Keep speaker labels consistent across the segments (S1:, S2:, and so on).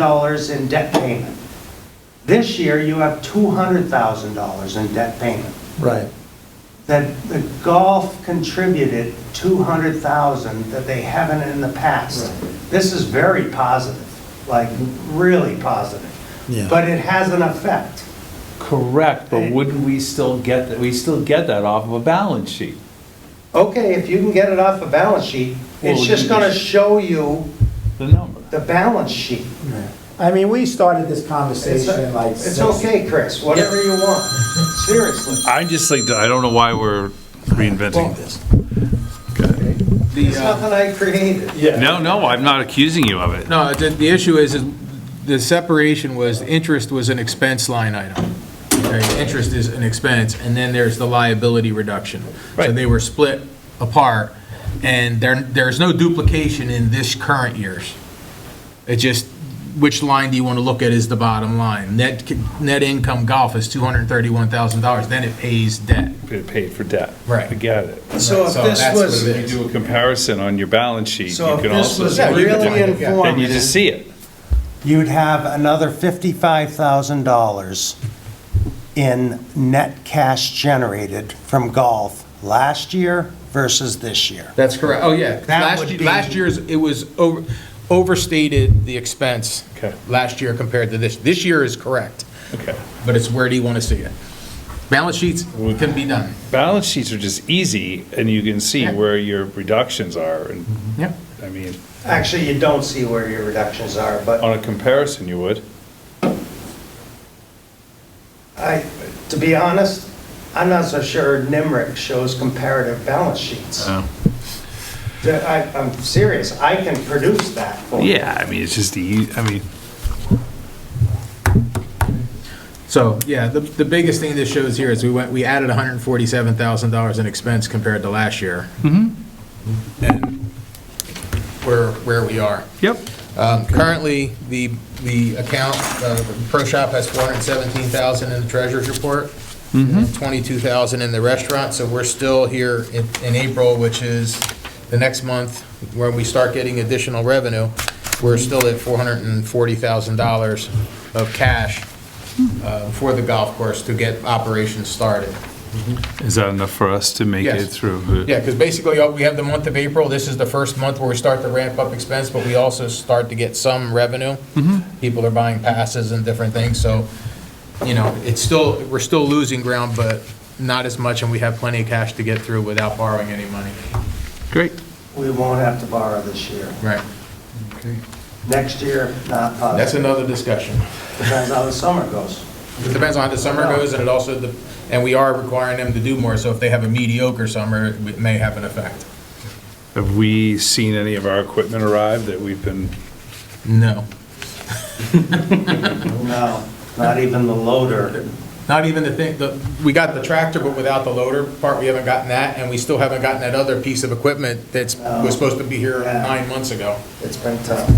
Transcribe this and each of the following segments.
S1: $100,000 in debt payment. This year, you have $200,000 in debt payment.
S2: Right.
S1: That the golf contributed 200,000 that they haven't in the past. This is very positive, like really positive.
S2: Yeah.
S1: But it has an effect.
S3: Correct, but wouldn't we still get, that? we still get that off of a balance sheet?
S1: Okay, if you can get it off the balance sheet, it's
S3: Well,
S1: just
S3: you-
S1: gonna show you
S3: The number.
S1: the balance sheet.
S2: I mean, we started this
S1: It's uh,
S2: conversation like.
S1: it's
S2: six-
S1: okay, Chris, whatever you want, seriously.
S4: I just like, I don't know why we're reinventing this.
S1: It's
S5: uh,
S1: nothing I created.
S4: No, no, I'm not accusing you of it.
S5: No, the, the issue is, is the separation was, interest was an expense line item. Okay, Interest is an expense, and then there's the liability reduction. So
S3: Right.
S5: they were split apart, and there, there's no duplication in this current year's. It just, which line do you want to look at is the bottom line? Net, net income golf is $231,000, then it pays debt.
S4: It paid for debt.
S5: Right.
S4: I get it.
S1: So if
S5: So
S1: this
S5: that's
S1: was,
S5: what
S4: If
S5: it
S4: you
S5: is.
S4: do a comparison on your balance sheet, you
S1: so if
S4: can
S1: this
S4: also.
S1: was
S4: see the
S1: really
S4: difference. Then you
S1: informative,
S4: just see it.
S1: you'd have another fifty-five thousand dollars in net cash generated from golf last year versus this year.
S5: That's correct, oh, yeah.
S1: That
S5: Last,
S1: would
S5: ye-
S1: be-
S5: last year's, it was over- overstated the expense
S4: Okay.
S5: last year compared to this. This year is correct,
S4: Okay.
S5: but it's where do you want to see it? Balance sheets can be done.
S4: Balance sheets are just easy and you can see
S5: Yeah.
S4: where your reductions are and,
S5: Yeah.
S4: I mean,
S1: Actually, you don't see where your reductions are, but
S4: on a comparison you would.
S1: I, to be honest, I'm not so sure NIMRIC shows comparative balance sheets. The- I, I'm serious, I can produce that for you.
S4: Yeah, I mean, it's just the, e, I mean.
S5: So, yeah, the, the biggest thing this shows here is we went, we added $147,000 in expense compared to last year. Mm-hmm.
S1: Mm-hmm.
S5: And where, where we are.
S4: Yep.
S5: Um, Currently, the, the account, uh, the Pro Shop has 417,000 in the treasurer's report, and 22,000 in the restaurant, so we're still here in, in April, which is the next month, where we start getting additional revenue, we're still at $440,000 of cash uh, for the golf course to get operations started.
S4: Is that enough for us to make
S5: Yes.
S4: it through?
S5: Yeah, because basically, uh, we have the month of April, this is the first month where we start to ramp up expense, but we also start to get some revenue. People are buying passes and different things, so, you know, it's still, we're still losing ground, but not as much, and we have plenty of cash to get through without borrowing any money.
S4: Great.
S1: We won't have to borrow this year.
S5: Right.
S1: Next year, not
S5: That's
S1: possible.
S5: another discussion.
S1: Depends how the summer goes.
S5: It depends on how the summer goes, and it also, de- and we are requiring them to do more, so if they have a mediocre summer, it may have an effect.
S4: Have we seen any of our equipment arrive that we've been,
S5: No.
S1: No, not even the loader.
S5: Not even the thing, the, we got the tractor, but without the loader part, we haven't gotten that, and we still haven't gotten that other piece of equipment that's, was supposed to be here
S1: Yeah.
S5: nine months ago.
S1: It's been tough.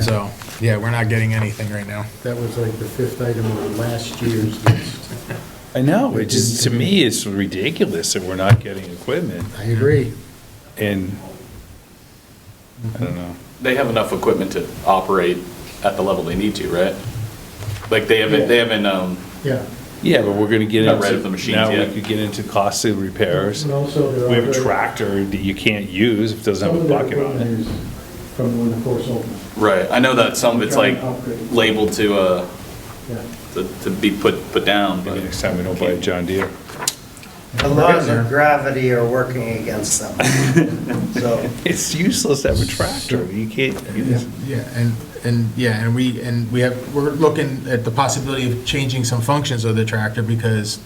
S5: So, yeah, we're not getting anything right now.
S6: That was like the fifth item on last year's list.
S4: I know, it just, to me, it's ridiculous that we're not getting equipment
S6: I agree.
S4: and, I don't know.
S7: they have enough equipment to operate at the level they need to, right? Like they haven't, they haven't, um,
S6: Yeah.
S4: Yeah, but we're gonna get
S7: Not
S4: into.
S7: rid of the machines
S4: Now
S7: yet.
S4: we could get into costly repairs.
S6: And also there are.
S4: We have a
S6: other-
S4: tractor that you can't use if it doesn't
S6: Some
S4: have
S6: of
S4: a
S6: their
S4: bucket on it.
S6: equipment is From when the course opened,
S7: right, I know that some of it's like labeled to, uh,
S6: yeah.
S7: to, to be put, put down, but.
S4: Maybe next time we don't buy a John Deere.
S1: The laws of gravity are working against them. So,
S4: It's useless to have a tractor, you can't use.
S5: Yeah, and, and, yeah, and we, and we have, we're looking at the possibility of changing some functions of the tractor because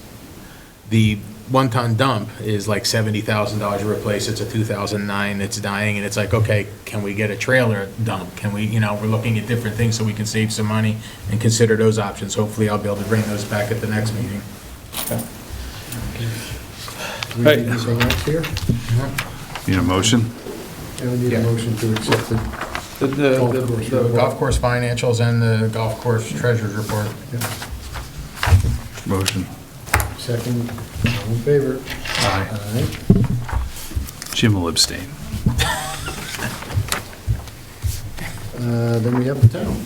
S5: the one-ton dump is like seventy thousand dollars to replace, it's a two thousand nine, it's dying, and it's like, okay, can we get a trailer dump? Can we, you know, we're looking at different things so we can save some money and consider those options. Hopefully, I'll be able to bring those back at the next meeting.
S6: Do we need anything else here?
S4: Need a motion?
S6: Yeah, we need
S5: Yeah.
S6: a motion to accept it.
S5: The,
S6: Golf course
S5: the
S6: report.
S5: golf course financials and the golf course treasurer's report.
S4: Motion.
S6: Second, all in favor?
S4: Aye.
S6: Aye.
S4: Jim will abstain.
S6: Uh, Then we have the town.